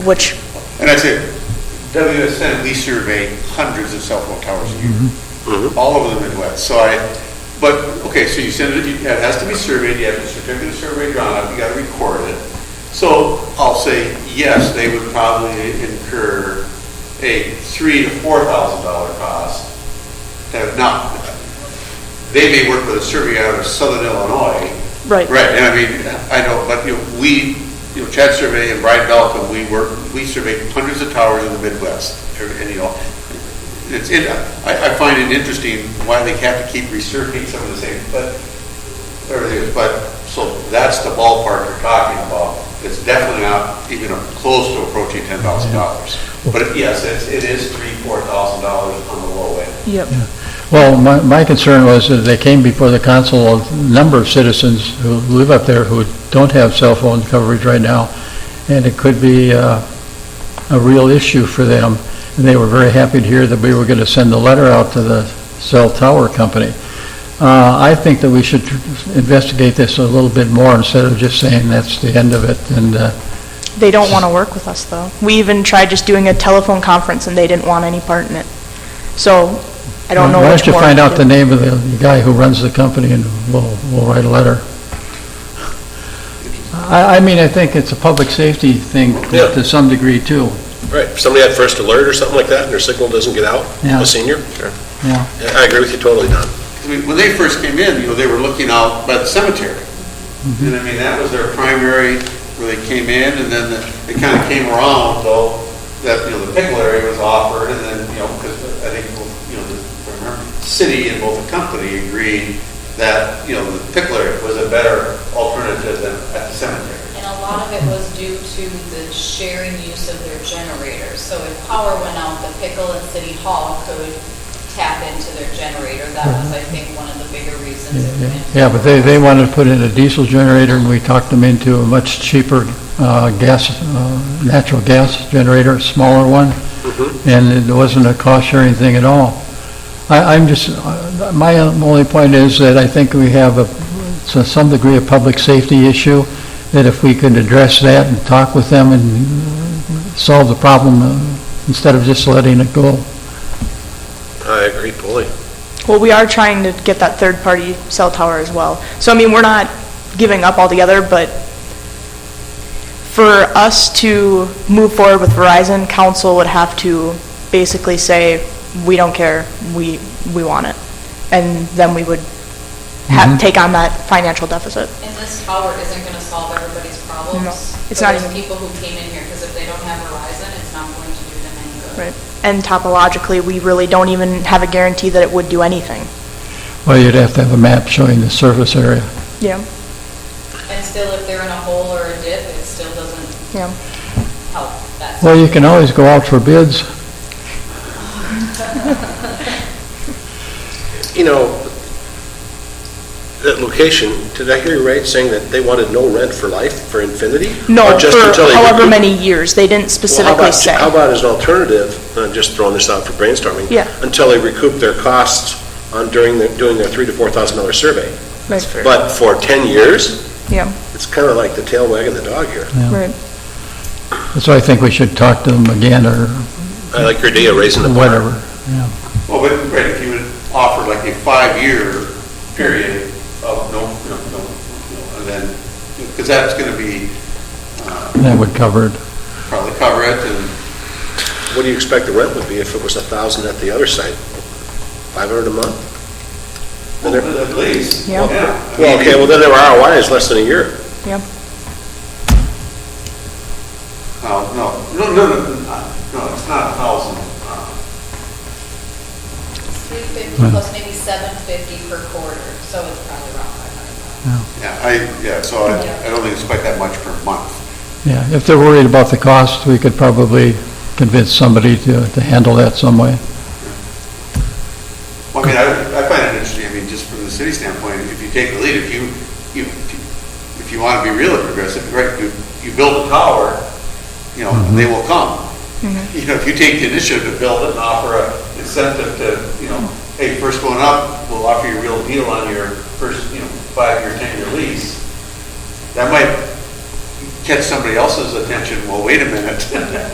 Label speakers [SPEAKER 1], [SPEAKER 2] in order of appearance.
[SPEAKER 1] Which,
[SPEAKER 2] And that's it. WSN, we survey hundreds of cell phone towers a year, all over the Midwest. So I, but, okay, so you send it, you- it has to be surveyed, you have a certificate of survey drawn up, you gotta record it. So I'll say, yes, they would probably incur a three to four thousand dollar cost. Now, Now, they may work with a survey out of southern Illinois,
[SPEAKER 1] right.
[SPEAKER 2] Right, and I mean, I know, but, you know, we, you know, Chad Survey and Brian Malcolm, we work, we survey hundreds of towers in the Midwest, and, and, you know, it's, it, I, I find it interesting why they have to keep resurfacing some of the same, but, everything, is- but, so that's the ballpark you're talking about. It's definitely not even close to approaching ten thousand dollars. But yes, it's, it is three, four thousand dollars on the low end.
[SPEAKER 1] Yep.
[SPEAKER 3] Well, my, my concern was that they came before the council, a number of citizens who live up there who don't have cell phone coverage right now, and it could be uh, a real issue for them. And they were very happy to hear that we were going to send a letter out to the cell tower company. Uh, I think that we should investigate this a little bit more instead of just saying that's the end of it and uh,
[SPEAKER 1] They don't want to work with us, though. We even tried just doing a telephone conference, and they didn't want any part in it. So I don't know
[SPEAKER 3] Why
[SPEAKER 1] which
[SPEAKER 3] don't you
[SPEAKER 1] more.
[SPEAKER 3] find
[SPEAKER 1] to
[SPEAKER 3] out the
[SPEAKER 1] do.
[SPEAKER 3] name of the guy who runs the company and we'll, we'll write a letter. I, I mean, I think it's a public safety thing
[SPEAKER 4] Yeah.
[SPEAKER 3] to some degree too,
[SPEAKER 4] Right, if somebody had first alert or something like that, and their signal doesn't get out,
[SPEAKER 3] Yeah.
[SPEAKER 4] a senior? Sure.
[SPEAKER 3] yeah.
[SPEAKER 4] I agree with you totally, Don.
[SPEAKER 2] I mean, when they first came in, you know, they were looking out by the cemetery. And I mean, that was their primary, where they came in, and then it kind of came around, though, that, you know, the pickle area was offered, and then, you know, because I think, you know, the, I remember, the city and both the company agreed that, you know, the pickle area was a better alternative than at the cemetery.
[SPEAKER 5] And a lot of it was due to the sharing use of their generators. So if power went out, the pickle at City Hall could tap into their generator. That was, I think, one of the bigger reasons it went.
[SPEAKER 1] Mm-hmm.
[SPEAKER 3] Yeah, but they, they wanted to put in a diesel generator and we talked them into a much cheaper, uh, gas, uh, natural gas generator, a smaller one. And it wasn't a cost sharing thing at all. I, I'm just, uh, my only point is that I think we have a, to some degree, a public safety issue, that if we could address that and talk with them and solve the problem uh, instead of just letting it go.
[SPEAKER 4] I agree fully.
[SPEAKER 1] Well, we are trying to get that third-party cell tower as well. So, I mean, we're not giving up altogether, but for us to move forward with Verizon, council would have to basically say, we don't care, we, we want it. And then we would have, take on that financial deficit.
[SPEAKER 5] And this tower isn't going to solve everybody's problems.
[SPEAKER 1] No, it's
[SPEAKER 5] But
[SPEAKER 1] not
[SPEAKER 5] there's
[SPEAKER 1] even-
[SPEAKER 5] people who came in here, because if they don't have Verizon, it's not going to do them any good.
[SPEAKER 1] Right. And topologically, we really don't even have a guarantee that it would do anything.
[SPEAKER 3] Well, you'd have to have a map showing the surface area.
[SPEAKER 1] Yeah.
[SPEAKER 5] And still, if they're in a hole or a dip, it still doesn't
[SPEAKER 1] Yeah.
[SPEAKER 5] help that.
[SPEAKER 3] Well, you can always go out for bids.
[SPEAKER 4] You know, that location, did I hear you right, saying that they wanted no rent for life, for infinity?
[SPEAKER 1] No,
[SPEAKER 4] Or just until
[SPEAKER 1] for
[SPEAKER 4] they-
[SPEAKER 1] however many years, they didn't
[SPEAKER 4] Well, how
[SPEAKER 1] specifically
[SPEAKER 4] about-
[SPEAKER 1] say.
[SPEAKER 4] How about as an alternative, I'm just throwing this out for brainstorming?
[SPEAKER 1] Yeah.
[SPEAKER 4] Until they recoup their costs on during, their- doing their three to $4,000 survey.
[SPEAKER 1] That's fair.
[SPEAKER 4] But for 10 years?
[SPEAKER 1] Yeah.
[SPEAKER 4] It's kind of like the tail wagging the dog here.
[SPEAKER 1] Right.
[SPEAKER 3] So I think we should talk to them again or
[SPEAKER 4] I like your idea of raising the bar.
[SPEAKER 3] whatever.
[SPEAKER 2] Well, but, right, if you would offer like a five-year period of no, no, no, no, and then, because that's gonna be, uh,
[SPEAKER 3] That would cover it.
[SPEAKER 2] probably cover it, and
[SPEAKER 4] What do you expect the rent would be if it was a thousand at the other site? Five hundred a month? Then they're-
[SPEAKER 2] At least,
[SPEAKER 1] Yeah.
[SPEAKER 2] yeah.
[SPEAKER 4] Well, okay, well, then their ROI is less than a year.
[SPEAKER 2] No, no, no, no, no, no, it's not a thousand. uh,
[SPEAKER 5] 350 plus maybe 750 per quarter, so it's probably around 500.
[SPEAKER 2] Yeah, I, yeah, so I, I don't think it's quite that much per month.
[SPEAKER 3] Yeah, if they're worried about the cost, we could probably convince somebody to, to handle that some way.
[SPEAKER 2] Well, I mean, I, I find it interesting, I mean, just from the city standpoint, if you take the lead, if you, you, if you want to be really progressive, right, you, you build a tower, you know, they will come. You know, if you take the initiative to build it and offer a incentive to, you know, hey, first one up, we'll offer you a real deal on your first, you know, five-year, ten-year lease, that might catch somebody else's attention, well, wait a minute.